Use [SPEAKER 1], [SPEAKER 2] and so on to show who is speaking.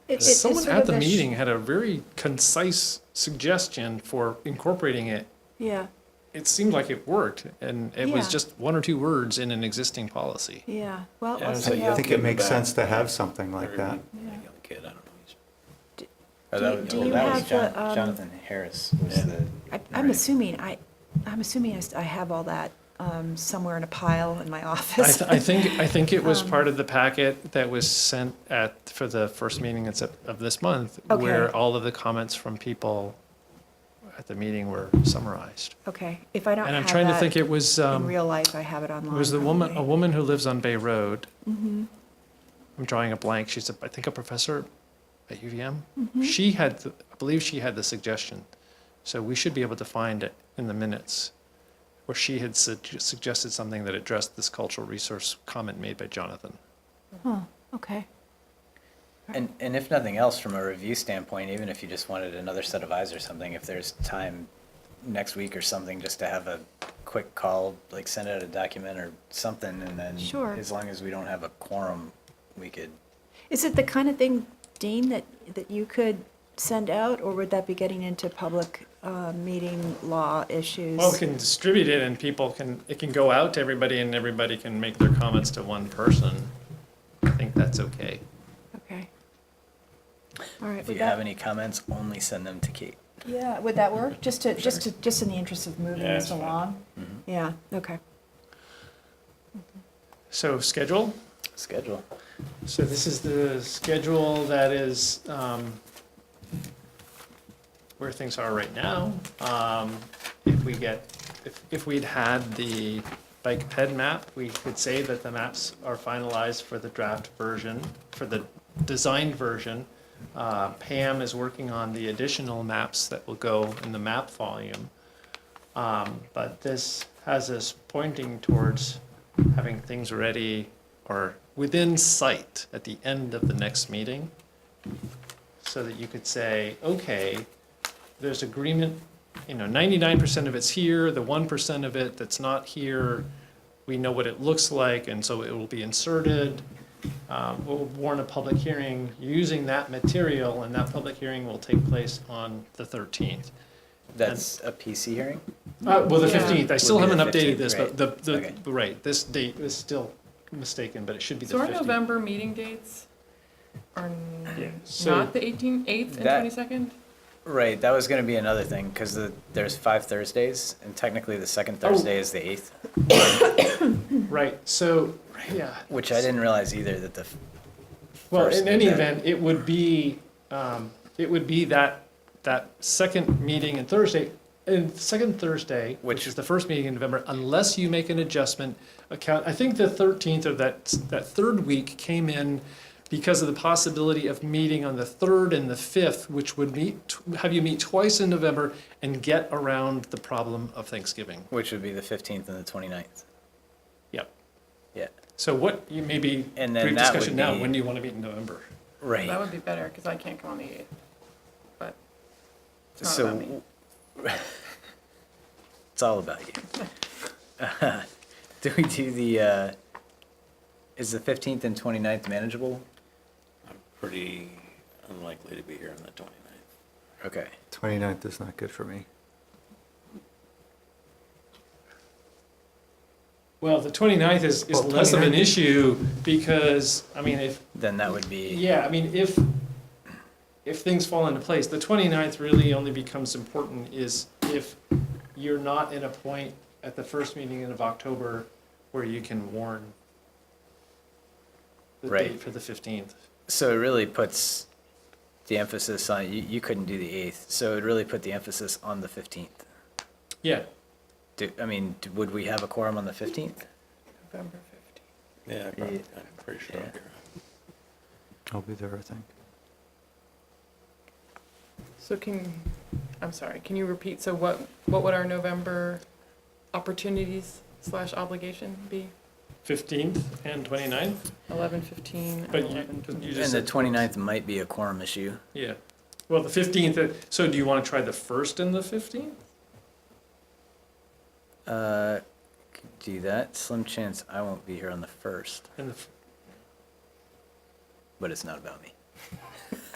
[SPEAKER 1] It- it- it's
[SPEAKER 2] Someone
[SPEAKER 1] sort
[SPEAKER 2] at
[SPEAKER 1] of
[SPEAKER 2] the
[SPEAKER 1] a sh-
[SPEAKER 2] meeting had a very concise suggestion for incorporating it.
[SPEAKER 1] Yeah,
[SPEAKER 2] It seemed like it worked, and it was
[SPEAKER 1] Yeah.
[SPEAKER 2] just one or two words in an existing policy.
[SPEAKER 1] yeah. Well,
[SPEAKER 3] Yeah,
[SPEAKER 1] we'll
[SPEAKER 3] it's
[SPEAKER 1] see
[SPEAKER 3] like you
[SPEAKER 1] how-
[SPEAKER 4] I think it
[SPEAKER 3] in the
[SPEAKER 4] makes
[SPEAKER 3] back.
[SPEAKER 4] sense to have something like that.
[SPEAKER 3] Maybe I'm a kid, I don't know. He's-
[SPEAKER 5] Oh,
[SPEAKER 1] Do
[SPEAKER 5] that
[SPEAKER 1] you-
[SPEAKER 5] was-
[SPEAKER 1] do
[SPEAKER 5] well,
[SPEAKER 1] you
[SPEAKER 5] that was
[SPEAKER 1] have the,
[SPEAKER 5] Jon-
[SPEAKER 1] um,
[SPEAKER 5] Jonathan Harris was
[SPEAKER 3] Yeah.
[SPEAKER 5] the.
[SPEAKER 1] I- I'm assuming, I, I'm assuming I s- I have all that um, somewhere in a pile in my
[SPEAKER 2] I,
[SPEAKER 1] office.
[SPEAKER 2] th- I think I think it
[SPEAKER 1] Um.
[SPEAKER 2] was part of the packet that was sent at for the first meeting in Sep- of this month,
[SPEAKER 1] Okay.
[SPEAKER 2] where all of the comments from people at the meeting were summarized.
[SPEAKER 1] Okay, if I don't
[SPEAKER 2] And I'm
[SPEAKER 1] have
[SPEAKER 2] trying to think,
[SPEAKER 1] that
[SPEAKER 2] it was
[SPEAKER 1] in
[SPEAKER 2] um,
[SPEAKER 1] real life, I have it online.
[SPEAKER 2] It was the woman, a
[SPEAKER 1] probably. Mm-hmm.
[SPEAKER 2] woman who lives on Bay Road. I'm drawing a blank. She's, a, I think, a professor at UVM. She had, the, I believe, she had the suggestion. So we should be able to find it in the minutes, where she had sug- suggested something that addressed this cultural resource comment made by Jonathan.
[SPEAKER 1] Huh, okay.
[SPEAKER 5] And, and if nothing else, from a review standpoint, even if you just wanted another set of eyes or something, if there's time next week or something, just to have a quick call, like send out a document or something, and then.
[SPEAKER 1] Sure.
[SPEAKER 5] As long as we don't have a quorum, we could,
[SPEAKER 1] Is it the kind of thing, Dean, that, that you could send out, or would that be getting into public uh, meeting law issues?
[SPEAKER 2] Well, we can distribute it, and people can. It can go out to everybody, and everybody can make their comments to one person. I think that's okay.
[SPEAKER 1] Okay. All right,
[SPEAKER 5] if you
[SPEAKER 1] would
[SPEAKER 5] have
[SPEAKER 1] that,
[SPEAKER 5] any comments, only send them to Kate.
[SPEAKER 1] yeah, would that work? Just to, just to, just in the interest of moving
[SPEAKER 3] Yeah,
[SPEAKER 1] this
[SPEAKER 3] it's fine.
[SPEAKER 1] along?
[SPEAKER 5] Mhm.
[SPEAKER 1] Yeah, okay.
[SPEAKER 2] So schedule.
[SPEAKER 5] Schedule.
[SPEAKER 2] So this is the schedule that is um, where things are right now. Um, If we get, if, if we'd had the bike ped map, we could say that the maps are finalized for the draft version, for the designed version. Uh, Pam is working on the additional maps that will go in the map volume. Um, But this has us pointing towards having things ready or within sight at the end of the next meeting. So that you could say, okay, there's agreement, you know, ninety-nine percent of it's here, the one percent of it that's not here, we know what it looks like, and so it will be inserted. Um, we'll warn a public hearing using that material, and that public hearing will take place on the thirteenth.
[SPEAKER 5] That's a PC hearing?
[SPEAKER 2] Uh, well, the
[SPEAKER 1] Yeah.
[SPEAKER 2] fifteenth, I still
[SPEAKER 5] Would be
[SPEAKER 2] haven't
[SPEAKER 5] the
[SPEAKER 2] updated
[SPEAKER 5] 15th,
[SPEAKER 2] this, but
[SPEAKER 5] right.
[SPEAKER 2] the, the,
[SPEAKER 5] Okay.
[SPEAKER 2] right, this date is still mistaken, but it should be the
[SPEAKER 6] So our
[SPEAKER 2] fifteenth.
[SPEAKER 6] November meeting dates are n-
[SPEAKER 2] Yeah, so-
[SPEAKER 6] not the eighteenth, eighth and
[SPEAKER 5] That-
[SPEAKER 6] twenty-second?
[SPEAKER 5] Right, that was gonna be another thing, because the, there's five Thursdays, and technically the second
[SPEAKER 2] Oh.
[SPEAKER 5] Thursday is the eighth,
[SPEAKER 2] Right, so, yeah,
[SPEAKER 5] which I didn't realize either that the, f-
[SPEAKER 2] well,
[SPEAKER 5] first
[SPEAKER 2] in any event,
[SPEAKER 5] event.
[SPEAKER 2] it would be, um, it would be that, that second meeting in Thursday, and second Thursday, which
[SPEAKER 5] Which-
[SPEAKER 2] is the first meeting in November, unless you make an adjustment account, I think the thirteenth or that, that third week came in because of the possibility of meeting on the third and the fifth, which would meet, have you meet twice in November and get around the problem of Thanksgiving.
[SPEAKER 5] which would be the fifteenth and the twenty-ninth.
[SPEAKER 2] Yep.
[SPEAKER 5] Yeah,
[SPEAKER 2] So what, you maybe,
[SPEAKER 5] And then
[SPEAKER 2] brief
[SPEAKER 5] that would
[SPEAKER 2] discussion now,
[SPEAKER 5] be-
[SPEAKER 2] when do you want to meet in November?
[SPEAKER 5] right.
[SPEAKER 6] That would be better, because I can't come on the eighth, but it's not about me.
[SPEAKER 5] So, it's all about you. Do we do the, uh, is the fifteenth and twenty-ninth manageable?
[SPEAKER 3] I'm pretty unlikely to be here on the 29th.
[SPEAKER 5] Okay,
[SPEAKER 4] 29th is not good for me.
[SPEAKER 2] Well, the 29th is, is
[SPEAKER 4] Well,
[SPEAKER 2] less of an
[SPEAKER 4] 29th
[SPEAKER 2] issue because, I mean, if,
[SPEAKER 5] then that would be,
[SPEAKER 2] yeah, I mean, if, if things fall into place, the 29th really only becomes important is if you're not in a point at the first meeting of October where you can warn the
[SPEAKER 5] Right.
[SPEAKER 2] date for the 15th.
[SPEAKER 5] so it really puts the emphasis on, you, you couldn't do the eighth, so it really put the emphasis on the fifteenth.
[SPEAKER 2] Yeah,
[SPEAKER 5] Do, I mean, d- would we have a quorum on the fifteenth?
[SPEAKER 6] November fifteenth.
[SPEAKER 3] Yeah, I
[SPEAKER 5] Yeah.
[SPEAKER 3] prob- I'm pretty sure I'll
[SPEAKER 5] Yeah.
[SPEAKER 3] be around.
[SPEAKER 4] I'll be there, I think.
[SPEAKER 6] So can, I'm sorry, can you repeat, so what, what would our November opportunities slash obligation be?
[SPEAKER 2] 15th and 29th,
[SPEAKER 6] Eleven fifteen and
[SPEAKER 2] but you,
[SPEAKER 6] eleven
[SPEAKER 2] you
[SPEAKER 6] twenty?
[SPEAKER 2] just.
[SPEAKER 5] And
[SPEAKER 2] said-
[SPEAKER 5] the 29th might be a quorum issue.
[SPEAKER 2] Yeah, well, the 15th, so do you want to try the 1st and the 15th?
[SPEAKER 5] Uh, could do that. Slim chance I won't be here on the first,
[SPEAKER 2] And the
[SPEAKER 5] but it's not about me.